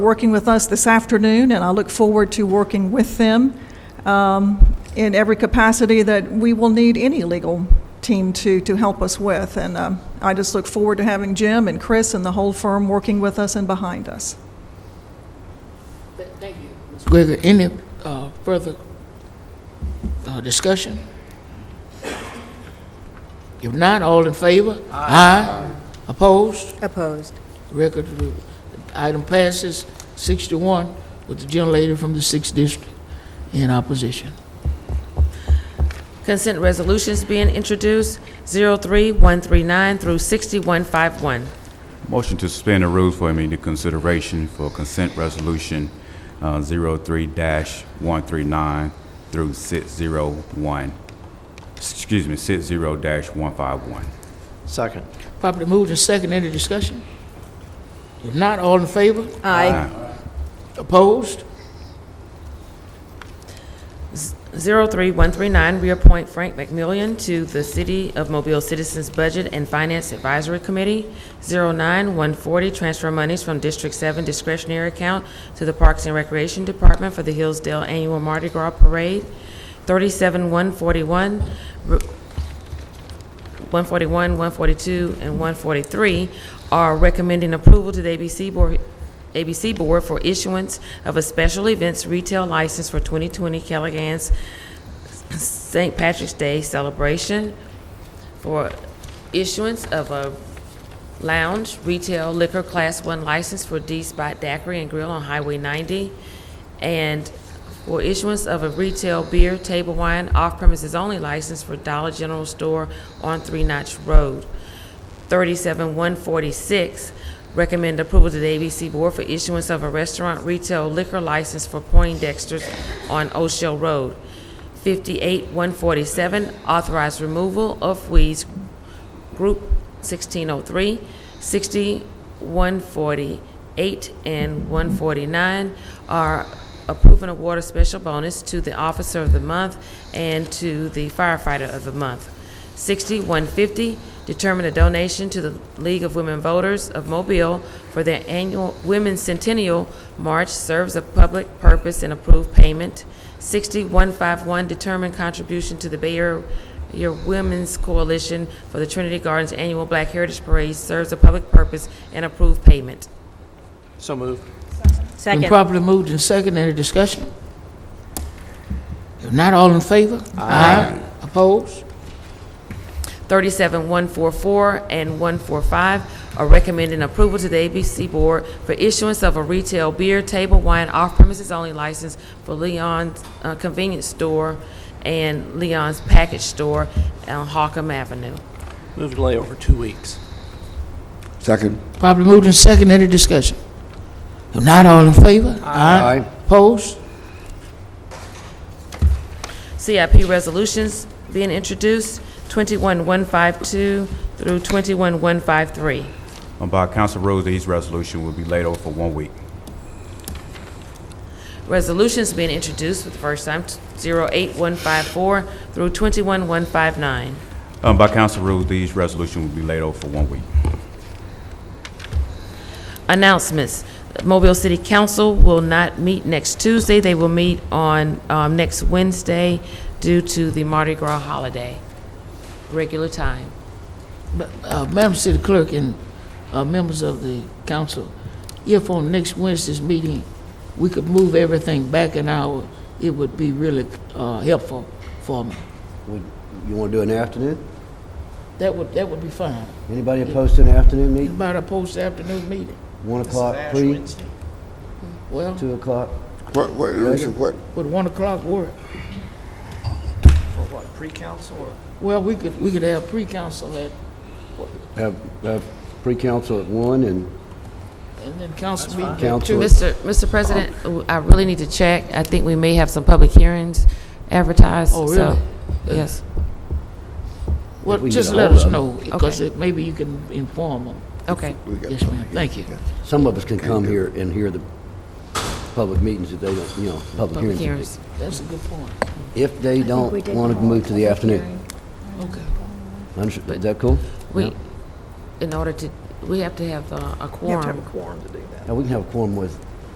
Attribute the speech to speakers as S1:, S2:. S1: working with us this afternoon, and I look forward to working with them um, in every capacity that we will need any legal team to, to help us with. And um, I just look forward to having Jim and Chris and the whole firm working with us and behind us.
S2: Th- Thank you. Ms. Wigger, any uh, further uh, discussion? If not, all in favor? Aye. Opposed?
S3: Opposed.
S2: Record, uh, item passes six to one with the gentlelady from the sixth district in opposition.
S4: Consent resolutions being introduced, 03139 through 6151.
S5: Motion to suspend the rules for immediate consideration for consent resolution uh, 03-139 through 601, excuse me, 60-151.
S6: Second.
S2: Properly moved and second, any discussion? If not, all in favor?
S3: Aye.
S2: Opposed?
S4: 03139, reappoint Frank McMillian to the City of Mobile Citizens Budget and Finance Advisory Committee. 09140, transfer monies from District 7 discretionary account to the Parks and Recreation Department for the Hillsdale Annual Mardi Gras Parade. 37141, re- 141, 142, and 143 are recommending approval to the ABC Board, ABC Board for issuance of a special events retail license for 2020 Caligans St. Patrick's Day celebration for issuance of a lounge retail liquor class 1 license for D-Spot Daiquiri and Grill on Highway 90, and for issuance of a retail beer, table wine, off-premises only license for Dollar General Store on Three Notch Road. 37146, recommend approval to the ABC Board for issuance of a restaurant retail liquor license for Poindexter's on O'Shell Road. 58147, authorize removal of weeds, Group 1603, 60, 148, and 149 are approving a water special bonus to the Officer of the Month and to the Firefighter of the Month. 60, 150, determine a donation to the League of Women Voters of Mobile for their annual Women's Centennial March serves a public purpose and approved payment. 60, 151, determine contribution to the Bay Area your Women's Coalition for the Trinity Gardens Annual Black Heritage Parade serves a public purpose and approved payment.
S6: So moved.
S2: Been
S3: Second.
S2: properly moved and second, any discussion? If not, all in favor? Aye. Opposed?
S4: 37, 144, and 145 are recommending approval to the ABC Board for issuance of a retail beer, table wine, off-premises only license for Leon's uh, Convenience Store and Leon's Package Store on Hawcom Avenue.
S6: Move delay over two weeks.
S7: Second.
S2: Properly moved and second, any discussion? If not, all in favor? Aye. Opposed?
S4: CIP resolutions being introduced, 21152 through 21153.
S5: Um, By council rules, these resolution will be laid over for one week.
S4: Resolutions being introduced for the first time, 08154 through 21159.
S5: Um, By council rules, these resolution will be laid over for one week.
S4: Announcements. Mobile City Council will not meet next Tuesday. They will meet on um, next Wednesday due to the Mardi Gras holiday, regular time.
S2: Uh, Madam City Clerk and uh, members of the council, if on next Wednesday's meeting, we could move everything back an hour, it would be really uh, helpful for me.
S7: Would- You want to do an afternoon?
S2: That would, that would be fine.
S7: Anybody opposed to an afternoon meeting?
S2: About a post-afternoon meeting.
S7: 1 o'clock, please?
S2: Well,
S7: 2 o'clock?
S8: What, what, listen, what,
S2: would one o'clock work?
S6: For what, pre-council or?
S2: Well, we could, we could have pre-council at,
S7: Have, have pre-council at 1 and
S2: and then council meeting at
S7: Council.
S2: two.
S4: Mr. Mr. President, I really need to check. I think we may have some public hearings advertised.
S2: Oh,
S4: so-
S2: really?
S4: Yes.
S2: Well,
S7: we
S2: just
S7: get
S2: let
S7: all
S2: us
S7: of
S2: know, because
S4: Okay.
S2: it- maybe you can inform them.
S4: Okay.
S8: we got
S2: Yes, ma'am, thank you.
S7: some of us can come here and hear the public meetings if they don't, you know, public
S4: Public
S7: hearings.
S4: hearings.
S2: That's a good point.
S7: If they don't
S3: we did
S7: want to
S3: call
S7: move to the afternoon.
S2: Okay.
S7: Unders- Is that cool?
S4: We, in order to, we have to have uh, a quorum.
S7: Now, we can have a quorum with